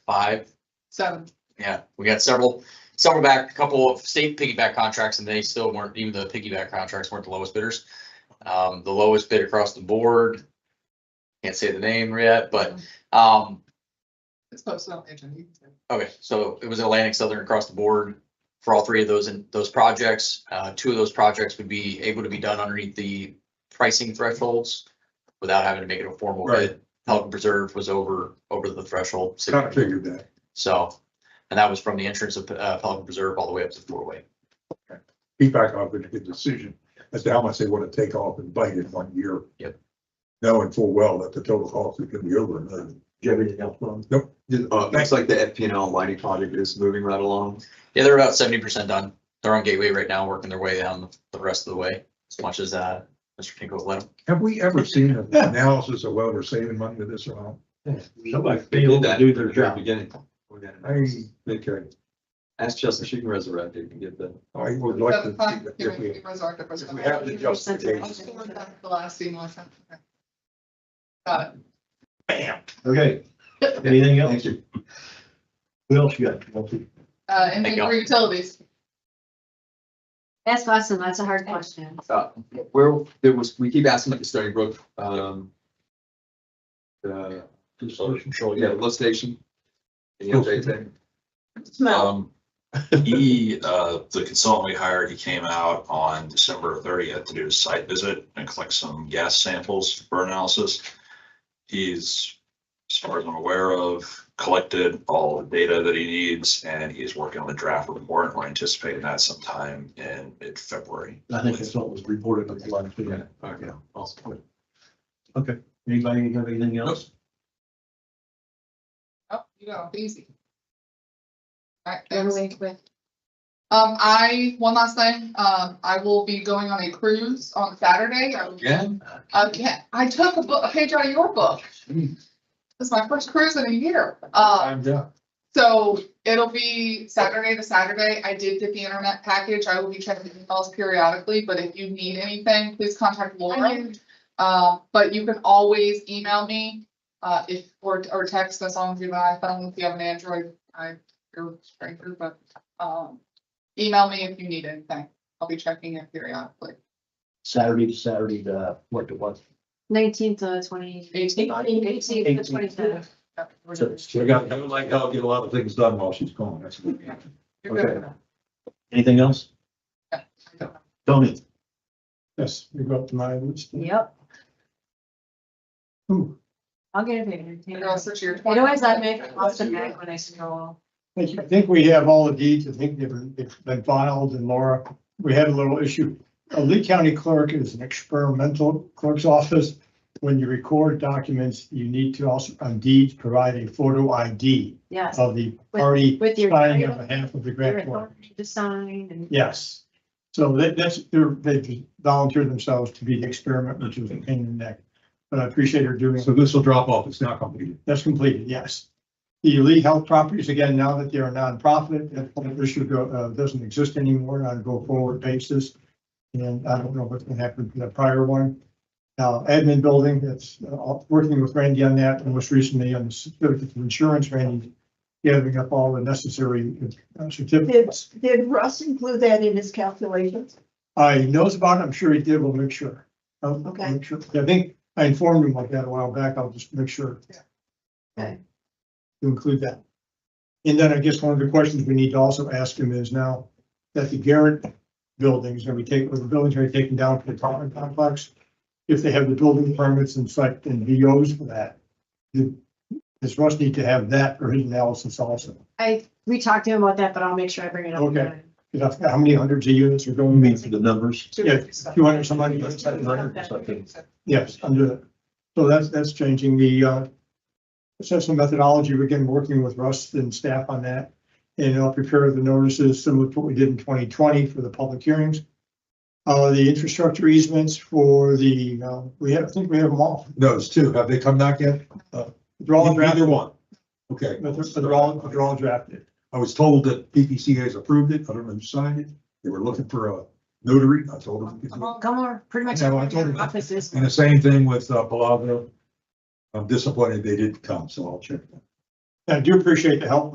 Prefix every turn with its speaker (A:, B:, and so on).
A: five.
B: Seven.
A: Yeah, we got several, several back, a couple of state piggyback contracts and they still weren't, even the piggyback contracts weren't the lowest bidders. Um, the lowest bid across the board. Can't say the name yet, but, um,
B: It's posted on the agenda. You can-
A: okay, so it was Atlantic Southern across the board. For all three of those and those projects, uh, two of those projects would be able to be done underneath the pricing thresholds. Without having to make it a formal bid. Pelican Preserve was over, over the threshold.
C: I figured that.
A: So, and that was from the entrance of uh, Pelican Preserve all the way up to four-way.
C: Feedback off with a good decision as to how much they want to take off and bite in one year.
A: Yep.
C: Knowing full well that the total cost is going to be over a million.
D: Do you have anything else, Ron?
C: Nope.
D: Uh, looks like the FPNL lighting project is moving right along.
A: Yeah, they're about seventy percent done. They're on Gateway right now, working their way down the rest of the way as much as uh, Mr. Kinko's let them.
C: Have we ever seen an analysis of whether we're saving money with this or
E: Somebody failed to do their job.
D: Beginning.
C: not? I, okay,
D: Ask Chelsea, she can resurrect it and get the.
C: I would like
B: That's
C: to.
B: fine.
C: see that
B: Here,
C: if
B: we
C: we-
B: resurrect it for
C: if we
B: seven.
C: have the
B: I'll
C: justification.
B: just forward that The last email I sent. Okay. Uh, Got it.
E: Okay. Anything
D: Thank
E: else?
D: you.
E: What else you got? Chelsea?
B: Uh, and
A: Thank you.
B: for utilities,
F: That's awesome. That's a hard question.
D: Uh, Where there was, we keep asking about the Stony Brook, um. The, yeah, the lift station. Any
C: Oh.
D: updates there?
G: Um, he, uh, the consultant we hired, he came out on December thirtieth to do a site visit and collect some gas samples for analysis. He's, as far as I'm aware of, collected all the data that he needs and he's working on the draft report. We're anticipating that sometime in mid-February.
E: I think that's what was reported on the last video.
D: Okay, awesome.
E: Anybody have anything else?
B: oh, you know, easy. All right,
F: Run
B: thanks.
F: away with.
B: Um, I, one last thing, um, I will be going on a cruise on Saturday. I will
D: Again?
B: Again, I took a book, a page out of your book.
C: Mm.
D: Hmm.
B: This is my first cruise in a year. Uh,
D: I'm done.
B: so it'll be Saturday to Saturday. I did get the internet package. I will be checking emails periodically, but if you need anything, please contact Laura. Uh, but you can always email me, uh, if, or, or text us on July phone if you have an Android. I, you're a stranger, but, um, email me if you need anything. I'll be checking it periodically.
E: Saturday to Saturday, uh, what to what?
F: Nineteenth to twenty.
B: Eighteenth.
F: Eighteenth to twenty-fifth.
E: So,
C: We got, I would like, I'll get a lot of things done while she's gone. That's what we have.
B: You're good.
E: Okay. Anything else? Tony?
C: Yes, you got the mileage.
F: Yep.
C: Ooh.
F: I'll get it. figured,
B: It
F: you know.
B: also to your
F: It
B: point.
F: always let me, Austin back when I scroll.
H: I think- I think we have all the deeds, I think they've they've been filed and Laura, we had a little issue. A Lee County Clerk is an experimental clerk's office. When you record documents, you need to also, on deeds, provide a photo ID
F: Yes,
H: of the party
F: with your.
H: signing on behalf of the
F: your
H: grant work.
F: authority To sign and.
H: Yes. So that, that's, they're, they volunteered themselves to be the experiment, which was a pain in the neck. But I appreciate her doing it.
C: So this will drop off. It's not completed.
H: That's completed, yes. The Lee Health Properties, again, now that they're a nonprofit, that whole issue go, uh, doesn't exist anymore on a go-forward basis. And I don't know what's gonna happen to the prior one. Now, admin building, that's, uh, working with Randy on that, and most recently on the certificate of insurance, Randy gathering up all the necessary uh, certificates.
I: Did Russ include that in his calculations?
H: Uh, he knows about it, I'm sure he did, we'll make sure. I'll- I'll
I: Okay.
H: make sure. I think I informed him like that a while back, I'll just make sure.
I: Okay.
H: To include that. And then I guess one of the questions we need to also ask him is now that the Garrett buildings, are we taking, the buildings are taken down for the apartment complex? If they have the building permits and such and VOs for that, do- does Russ need to have that for his analysis also?
F: I, we talked to him about that, but I'll make sure I bring it up.
H: Okay. Because how many hundreds of units are going?
E: Mean for the numbers?
H: Yeah, you want somebody to set it
E: up or something.
H: Yes, under that. So that's, that's changing the, uh, assessment methodology. We're getting, working with Russ and staff on that. And I'll prepare the notices similar to what we did in twenty twenty for the public hearings. Uh, the infrastructure easements for the, uh, we have, I think we have them all.
C: Those two, have they come back yet?
H: They're all
C: Either
H: drafted,
C: one. Okay.
H: but they're- but they're all, they're all drafted.
C: I was told that PPC has approved it, I don't know who signed it, they were looking for a notary, I told them.
F: Come on, pretty much.
C: No, I told him.
F: Offices.
C: And the same thing with uh, Palavo. I'm disappointed they didn't come, so I'll check.
H: I do appreciate the help